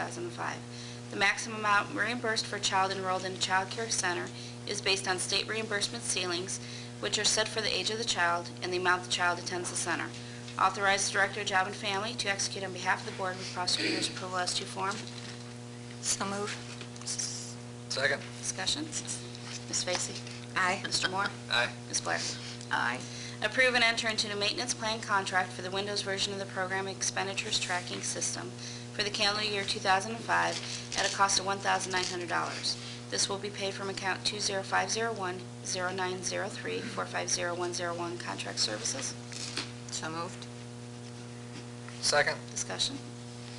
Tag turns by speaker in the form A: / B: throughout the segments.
A: 2005. The maximum amount reimbursed for a child enrolled in a child care center is based on state reimbursement ceilings, which are set for the age of the child and the amount the child attends the center. Authorize Director of Job and Family to execute on behalf of the Board with prosecutor's approval as to form.
B: So move.
C: Second.
A: Discussion? Ms. Vacy?
B: Aye.
A: Mr. Moore?
C: Aye.
A: Ms. Blair?
B: Aye.
A: Approve and enter into a maintenance plan contract for the Windows version of the program expenditures tracking system for the calendar year 2005 at a cost of $1,900. This will be paid from account 20501-0903-450101 Contract Services.
B: So moved.
C: Second.
A: Discussion.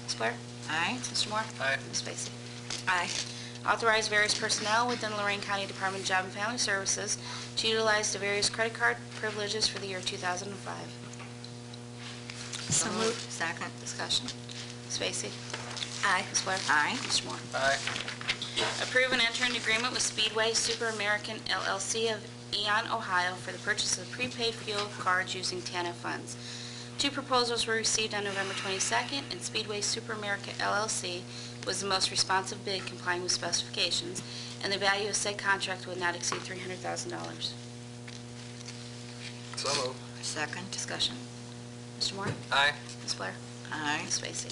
A: Ms. Blair?
B: Aye.
A: Mr. Moore?
C: Aye.
A: Ms. Vacy?
B: Aye.
A: Authorize various personnel within Lorraine County Department of Job and Family Services to utilize the various credit card privileges for the year 2005.
B: So moved. Second.
A: Discussion. Ms. Vacy?
B: Aye.
A: Ms. Blair?
B: Aye.
A: Mr. Moore?
C: Aye.
A: Approve and enter an agreement with Speedway Super American LLC of Eon, Ohio for the purchase of prepaid fuel cards using TANF funds. Two proposals were received on November 22nd, and Speedway Super America LLC was the most responsive bid complying with specifications, and the value of said contract would not exceed $300,000.
C: So moved.
B: Second.
A: Discussion. Mr. Moore?
C: Aye.
A: Ms. Blair?
B: Aye.
A: Ms. Vacy?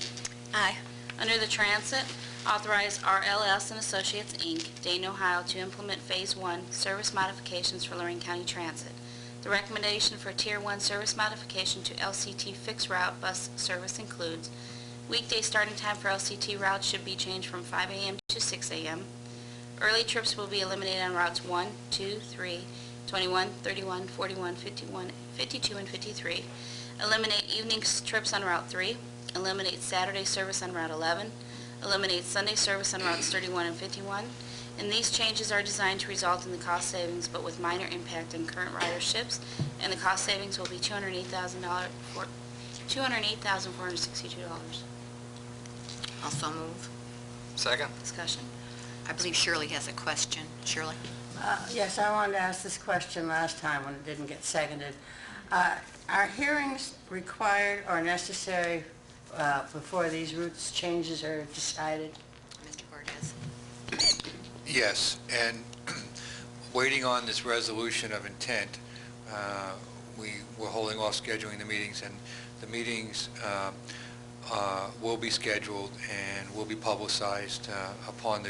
B: Aye.
A: Under the Transit, authorize RLS and Associates, Inc., Dayton, Ohio, to implement Phase 1 service modifications for Lorraine County Transit. The recommendation for Tier 1 service modification to LCT fixed route bus service includes weekday starting time for LCT routes should be changed from 5 a.m. to 6 a.m. Early trips will be eliminated on routes 1, 2, 3, 21, 31, 41, 51, 52, and 53. Eliminate evening s- trips on Route 3. Eliminate Saturday service on Route 11. Eliminate Sunday service on routes 31 and 51. And these changes are designed to result in the cost savings, but with minor impact on current riderships, and the cost savings will be $208,000 for- $208,462.
B: Also move.
C: Second.
A: Discussion.
B: I believe Shirley has a question. Shirley?
D: Uh, Yes, I wanted to ask this question last time when it didn't get seconded. Uh, Are hearings required or necessary uh, before these routes changes are decided?
B: Mr. Cortez?
E: Yes, and waiting on this resolution of intent, uh, we were holding off scheduling the meetings, and the meetings uh, uh, will be scheduled and will be publicized uh, upon the,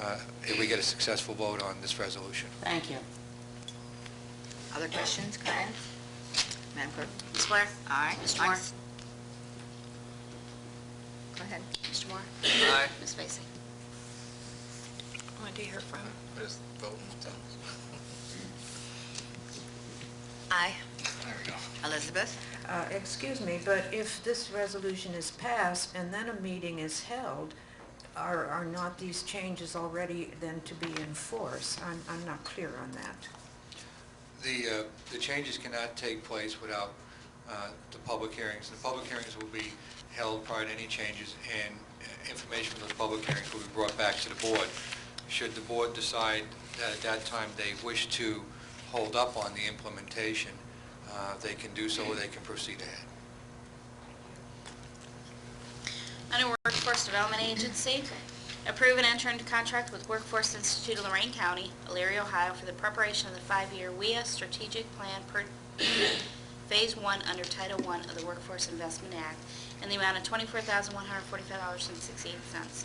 E: uh, if we get a successful vote on this resolution.
D: Thank you.
B: Other questions, comments? Madam Clerk?
A: Ms. Blair?
B: Aye.
A: Mr. Moore?
B: Go ahead.
A: Mr. Moore?
C: Aye.
A: Ms. Vacy?
B: What do you hear from?
C: Just vote.
B: Aye.
C: There we go.
B: Elizabeth?
F: Uh, Excuse me, but if this resolution is passed and then a meeting is held, are, are not these changes already then to be in force? I'm, I'm not clear on that.
E: The, uh, the changes cannot take place without uh, the public hearings. The public hearings will be held prior to any changes, and uh, information from those public hearings will be brought back to the board. Should the board decide that at that time they wish to hold up on the implementation, uh, they can do so, or they can proceed ahead.
A: Under Workforce Development Agency, approve and enter into contract with Workforce Institute of Lorraine County, Elyria, Ohio, for the preparation of the five-year WIA strategic plan per Phase 1 under Title I of the Workforce Investment Act in the amount of $24,145.68.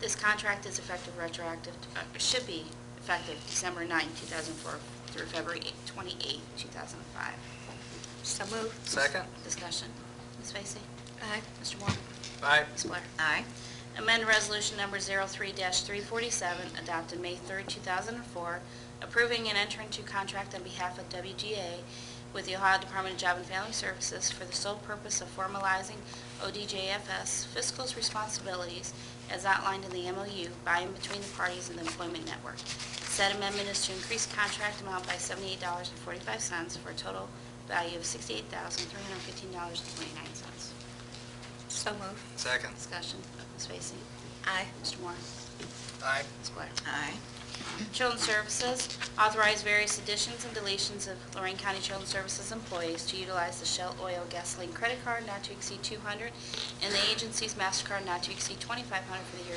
A: This contract is effective retroactive, uh, should be effective December 9, 2004 through February 28, 2005.
B: So move.
C: Second.
A: Discussion. Ms. Vacy?
B: Aye.
A: Mr. Moore?
C: Aye.
A: Ms. Blair?
B: Aye.
A: Amend Resolution Number 03-347, adopted May 3, 2004, approving and entering into contract on behalf of WGA with the Ohio Department of Job and Family Services for the sole purpose of formalizing ODJFS fiscal responsibilities as outlined in the MOU by and between the parties in the employment network. Said amendment is to increase contract amount by $78.45 for a total value of $68,315.29.
B: So move.
C: Second.
A: Discussion, Ms. Vacy?
B: Aye.
A: Mr. Moore?
C: Aye.
A: Ms. Blair?
B: Aye.
A: Children's Services, authorize various additions and deletions of Lorraine County Children's Services employees to utilize the Shell Oil Gasoline Credit Card not to exceed 200 and the agency's MasterCard not to exceed 2,500 for the year